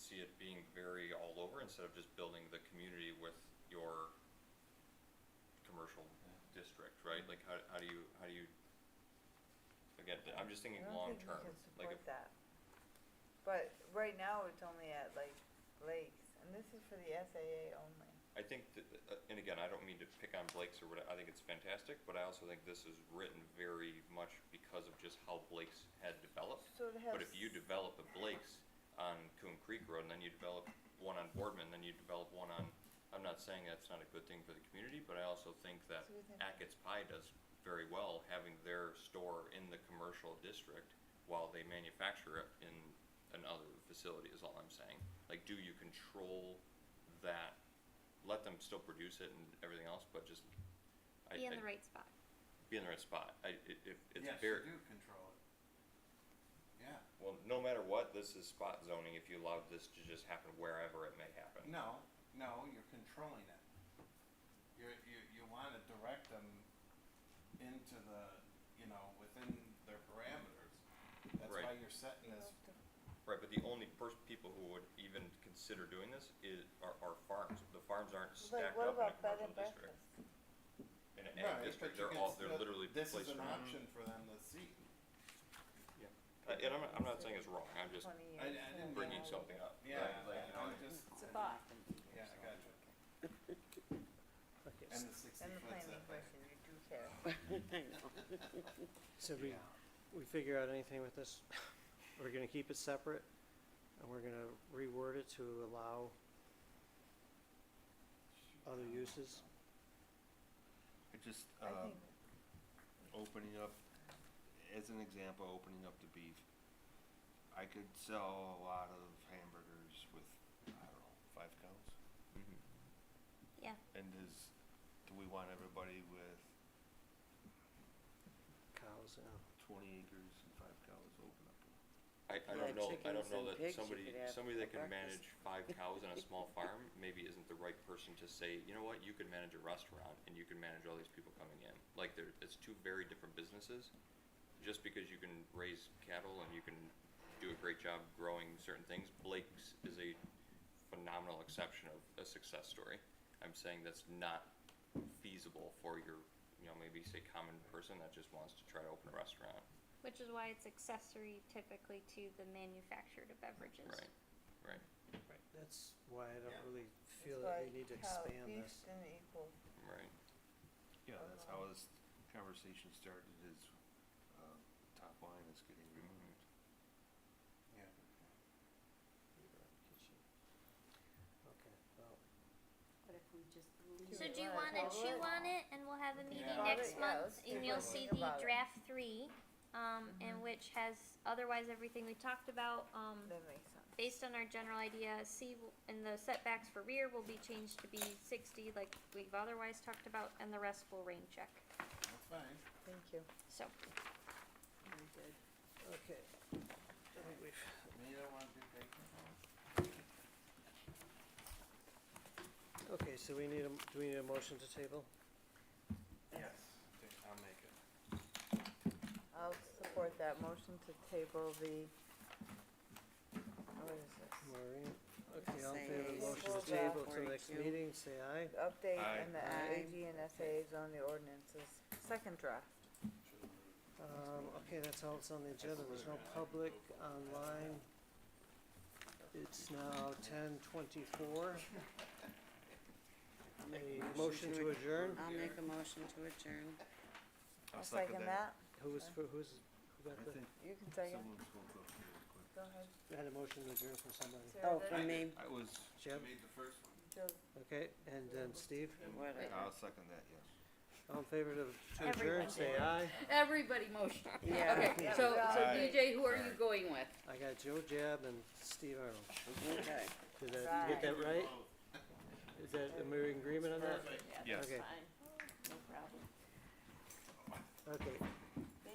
it being very all over instead of just building the community with your commercial district, right? Like, how, how do you, how do you, again, I'm just thinking long term, like, if, I don't think we can support that. But right now, it's only at like lakes, and this is for the SAA only. I think that, uh, and again, I don't mean to pick on Blake's or what, I think it's fantastic, but I also think this is written very much because of just how Blake's had developed. So it has. But if you develop a Blake's on Coon Creek Road, and then you develop one on Boardman, then you develop one on, I'm not saying that's not a good thing for the community, but I also think that So we think- Ackett's Pie does very well having their store in the commercial district while they manufacture it in another facility is all I'm saying. Like, do you control that, let them still produce it and everything else, but just, I, Be in I- the right spot. be in the right spot. I, it, it, it's Yes, very. you do control it. Yeah, Well, no matter what, this is spot zoning if you allowed this to just happen wherever it may happen. no, no, you're controlling it. You're, you, you wanna direct them into the, you know, within their parameters. That's why Right. you're setting this, Right, but the only pers- people who would even consider doing this is, are, are farms. The farms aren't Like, stacked what up in a about bed and commercial district. breakfast? In an right, ag but district, you they're can all, they're still- literally this placed. is an around- option for them to see. Uh, And I'm, I'm not saying it's wrong, I'm just Twenty I- I years. didn't yeah. mean bringing something up. Yeah, right? Like, you know, I'm it- just. It's a thought. Yeah, I gotcha. Okay, And s- the sixty And the foot planning setback. question, you do care. Uh, So we, we figure out anything with this, we're gonna keep it separate, and we're gonna reword it to allow other uses. I just, I uh, think, opening up, as an example, opening up the beef. I could sell a lot of hamburgers with, I don't know, five cows. Mhm. Yeah. And is, do we want everybody with Cows, you know. twenty acres and five cows open up? I, I Yeah, don't know, I don't chickens know and that pigs you somebody, could have somebody that for can breakfast. manage five cows on a small farm maybe isn't the right person to say, you know what, you can manage a restaurant and you can manage all these people coming in. Like there, it's two very different businesses. Just because you can raise cattle and you can do a great job growing certain things, Blake's is a phenomenal exception of a success story. I'm saying that's not feasible for your, you know, maybe say common person that just wants to try to open a restaurant, Which is why it's accessory typically to the manufactured beverages. right? Right, That's why I Yeah. don't really it's feel that like we need to how expand beef this. didn't equal right. Yeah, that's how this conversation started is, uh, top line is getting removed. Yeah. Okay, well, What if we just leave So it? You're do you right. wanna Well, chew we're- on it and we'll have a meeting Yeah. next Yeah, month let's do and it. you'll see the About it. draft three, um, and which has otherwise everything we talked about, um, That makes sense. based on our general idea, C w- and the setbacks for rear will be changed to be sixty like we've otherwise talked about and the rest will rain check, That's fine. Thank you. so. Very good. okay. I think we've, You don't wanna do bacon? okay, so we need a, m- do we need a motion to table? Yes. I'll make it. I'll support that motion to table the, what is this? Maureen, okay, all in Say favor of the motion Well, to table till forty next two. meeting, say aye. The Update Aye. and the Aye. AG and SAs on the ordinances, second draft. Um, okay, that's all that's on the agenda, there's no public online. It's now ten twenty-four. A motion to adjourn, I'll make a motion to adjourn. I'll second that. who was, for- who's, who got I the, think You can second. someone's going to go through real quick. Go ahead. had a motion to adjourn from somebody, Sarah Oh, did? for me, I was, I Jim, made the first one. Jill okay, and then Steve, whatever. I'll second that, yes. all in favor of, to adjourn, Everybody. say aye. Everybody motion. Yeah. Okay, so, so Aye. DJ, who are you going with? I got Joe Jab and Steve Arnold, Okay. did that, you get that right? Is that, am we in agreement on that? Perfect. Yes. Okay. Fine, no problem. Okay,